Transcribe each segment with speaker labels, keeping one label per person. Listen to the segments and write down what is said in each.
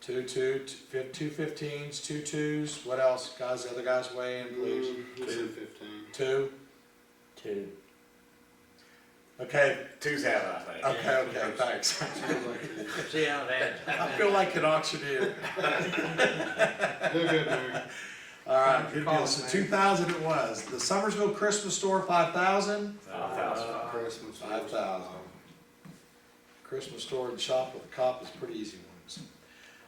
Speaker 1: Two two, two fif- two fifteens, two twos, what else? Guys, the other guys weigh in, please.
Speaker 2: Um, Two fifteen.
Speaker 1: Two,
Speaker 3: Two.
Speaker 1: okay,
Speaker 4: Two's out, I think.
Speaker 1: okay, okay, thanks.
Speaker 2: Sounds like that.
Speaker 3: See how that,
Speaker 1: I feel like an auctioneer.
Speaker 2: They're good, Mary.
Speaker 1: All right,
Speaker 5: Thank you
Speaker 1: good deal.
Speaker 5: for calling,
Speaker 1: So
Speaker 5: man.
Speaker 1: two thousand it was. The Summersville Christmas store, five thousand.
Speaker 4: A thousand.
Speaker 2: Uh,
Speaker 3: Uh,
Speaker 2: Christmas.
Speaker 1: Five thousand. Christmas store and shop with a cop is pretty easy ones.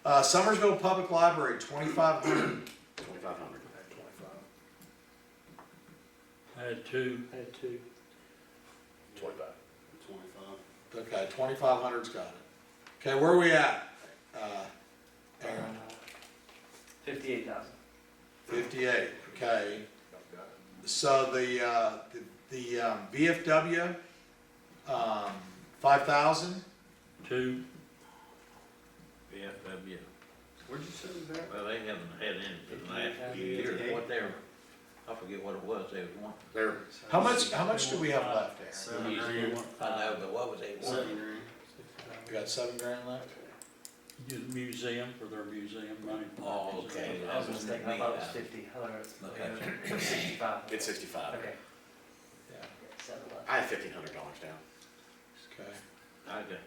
Speaker 1: Uh, Summersville Public Library, twenty-five hundred.
Speaker 4: Twenty-five hundred.
Speaker 3: I had uh, two. I had two.
Speaker 4: Twenty-five.
Speaker 2: Twenty-five.
Speaker 1: Okay, twenty-five hundred's got it. Okay, where are we at? Uh, Aaron,
Speaker 6: Fifty-eight thousand.
Speaker 1: fifty-eight, okay. So the, uh, the, the um, VFW, um, five thousand,
Speaker 3: Two.
Speaker 7: VFW,
Speaker 2: Where'd you say it was at?
Speaker 7: well, they haven't had any for the last few
Speaker 2: Yeah.
Speaker 7: years, what they were, I forget what it was they was wanting.
Speaker 4: There,
Speaker 1: how much, how much do we have left, Aaron?
Speaker 2: Seven grand.
Speaker 7: I know, but what was they wanting?
Speaker 2: Seven grand.
Speaker 1: We got seven grand left?
Speaker 3: Do the museum for their museum money.
Speaker 7: Oh, okay.
Speaker 6: I was mistaken, I thought it was fifty, I thought it was it was sixty-five.
Speaker 4: it's sixty-five.
Speaker 6: Okay.
Speaker 1: Yeah,
Speaker 6: Seven left.
Speaker 4: I had fifteen hundred dollars down.
Speaker 1: okay.
Speaker 7: I got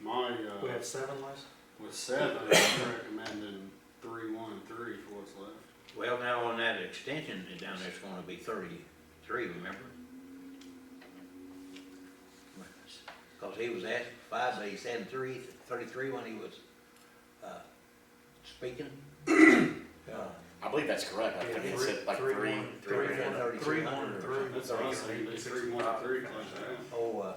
Speaker 2: My,
Speaker 5: We
Speaker 2: uh,
Speaker 5: have seven left?
Speaker 2: with seven, I'm recommending three, one, and three for what's left.
Speaker 7: Well, now on that extension down there's gonna be thirty-three, remember? Cause he was asked five, but he said three, thirty-three when he was, uh, speaking. Uh,
Speaker 1: Yeah.
Speaker 4: I believe that's correct, I think it said like
Speaker 5: Three-
Speaker 4: three,
Speaker 5: one-
Speaker 4: three grand.
Speaker 5: Three, one, and three.
Speaker 2: That's awesome, it's three, one, and three, like that.
Speaker 7: Oh, uh,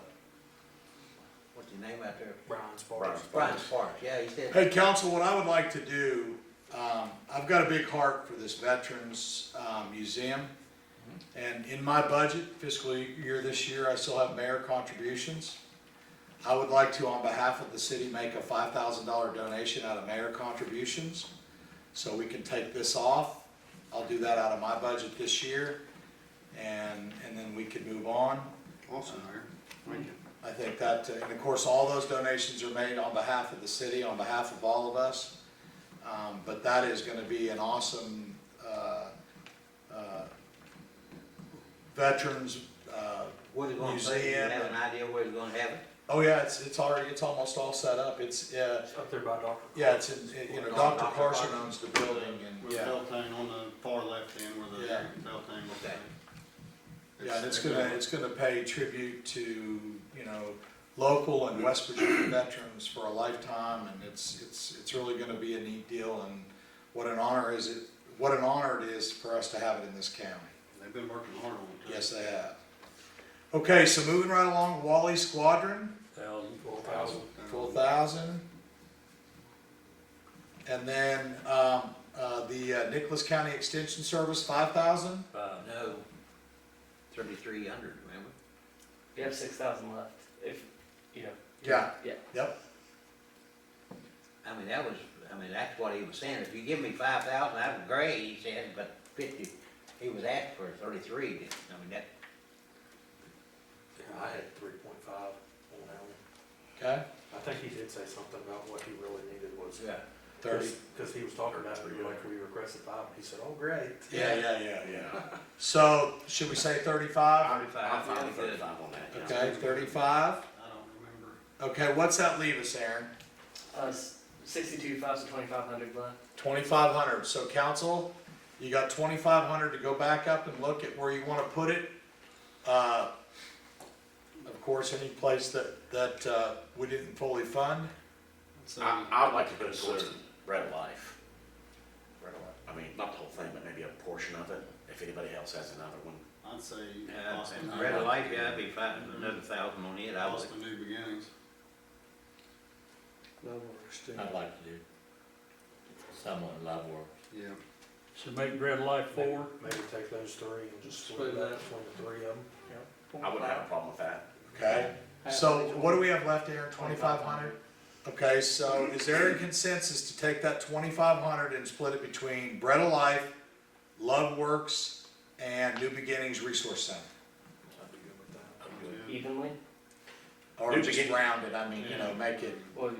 Speaker 7: what's his name out there?
Speaker 5: Brown's
Speaker 4: Right.
Speaker 5: Bars.
Speaker 7: Brian Sparks, yeah, he said.
Speaker 1: Hey, council, what I would like to do, um, I've got a big heart for this Veterans, um, Museum. And in my budget fiscal year this year, I still have mayor contributions. I would like to, on behalf of the city, make a five thousand dollar donation out of mayor contributions. So we can take this off. I'll do that out of my budget this year. And, and then we can move on.
Speaker 2: Awesome, Mayor. Thank you.
Speaker 1: I think that, uh, and of course, all those donations are made on behalf of the city, on behalf of all of us. Um, But that is going to be an awesome uh, uh, veterans, uh,
Speaker 7: What you gonna say, you
Speaker 1: Museum.
Speaker 7: have an idea where it's gonna have it?
Speaker 1: oh yeah, it's, it's already, it's almost all set up. It's, uh,
Speaker 5: It's up there by Dr.
Speaker 1: yeah, it's, in- you know, Dr. Carson owns the building and,
Speaker 2: With the
Speaker 1: yeah.
Speaker 2: Beltane on the far left end where the
Speaker 1: Yeah.
Speaker 2: Beltane was
Speaker 7: Okay.
Speaker 2: at.
Speaker 1: Yeah, and it's gonna, it's gonna pay tribute to, you know, local and West Virginia veterans for a lifetime, and it's, it's, it's really gonna be a neat deal, and what an honor is it, what an honor it is for us to have it in this county.
Speaker 2: They've been working hard on it. too.
Speaker 1: Yes, they have. Okay, so moving right along, Wally Squadron,
Speaker 3: Thousand.
Speaker 5: Four thousand.
Speaker 2: Uh,
Speaker 1: twelve thousand. And then, um, uh, the uh, Nicholas County Extension Service, five thousand.
Speaker 3: Five.
Speaker 7: No, thirty-three hundred, remember?
Speaker 6: We have six thousand left, if, you know.
Speaker 1: Yeah.
Speaker 6: Yeah.
Speaker 1: Yep,
Speaker 7: I mean, that was, I mean, that's what he was saying, if you give me five thousand, I'm great, he said, but fifty, he was asked for thirty-three, I mean, that,
Speaker 5: I had three point five on that one.
Speaker 1: okay,
Speaker 5: I think he did say something about what he really needed was.
Speaker 7: yeah.
Speaker 1: thirty.
Speaker 5: Cause he was talking about, it, we were like, we requested five, he said, oh, great.
Speaker 1: Yeah, yeah, yeah, yeah. So, should we say thirty-five?
Speaker 4: I'm
Speaker 7: Thirty-five,
Speaker 4: fine
Speaker 7: yeah,
Speaker 4: with
Speaker 7: good.
Speaker 4: thirty-five on that, yeah.
Speaker 1: Okay, thirty-five.
Speaker 2: I don't remember.
Speaker 1: Okay, what's that leave us, Aaron?
Speaker 6: Uh, s- sixty-two, five, so twenty-five hundred left.
Speaker 1: Twenty-five hundred. So council, you got twenty-five hundred to go back up and look at where you wanna put it. Uh, Of course, any place that, that, uh, we didn't fully fund.
Speaker 2: That's, uh,
Speaker 4: I, I would like to put it towards Red Life. I mean, not the whole thing, but maybe a portion of it, if anybody else has another one.
Speaker 2: I'd say
Speaker 7: Yeah,
Speaker 2: Austin,
Speaker 7: and Red light, yeah, I'd be five, another thousand on it, I was,
Speaker 2: Austin New Beginnings.
Speaker 5: No, we're still.
Speaker 8: I'd like to do someone love work.
Speaker 2: Yeah.
Speaker 3: So make Red Life four.
Speaker 5: Maybe take those three and just split it up between the three of them.
Speaker 4: I wouldn't have a problem with that.
Speaker 1: Okay, so what do we have left, Aaron? Twenty-five hundred? Okay, so is there a consensus to take that twenty-five hundred and split it between Bread of Life, Love Works, and New Beginnings Resource Center?
Speaker 5: I'd be good with that.
Speaker 2: yeah.
Speaker 6: Evenly,
Speaker 1: Or
Speaker 4: New
Speaker 1: just
Speaker 4: Begin-
Speaker 1: round it, I mean, you know, make it
Speaker 6: or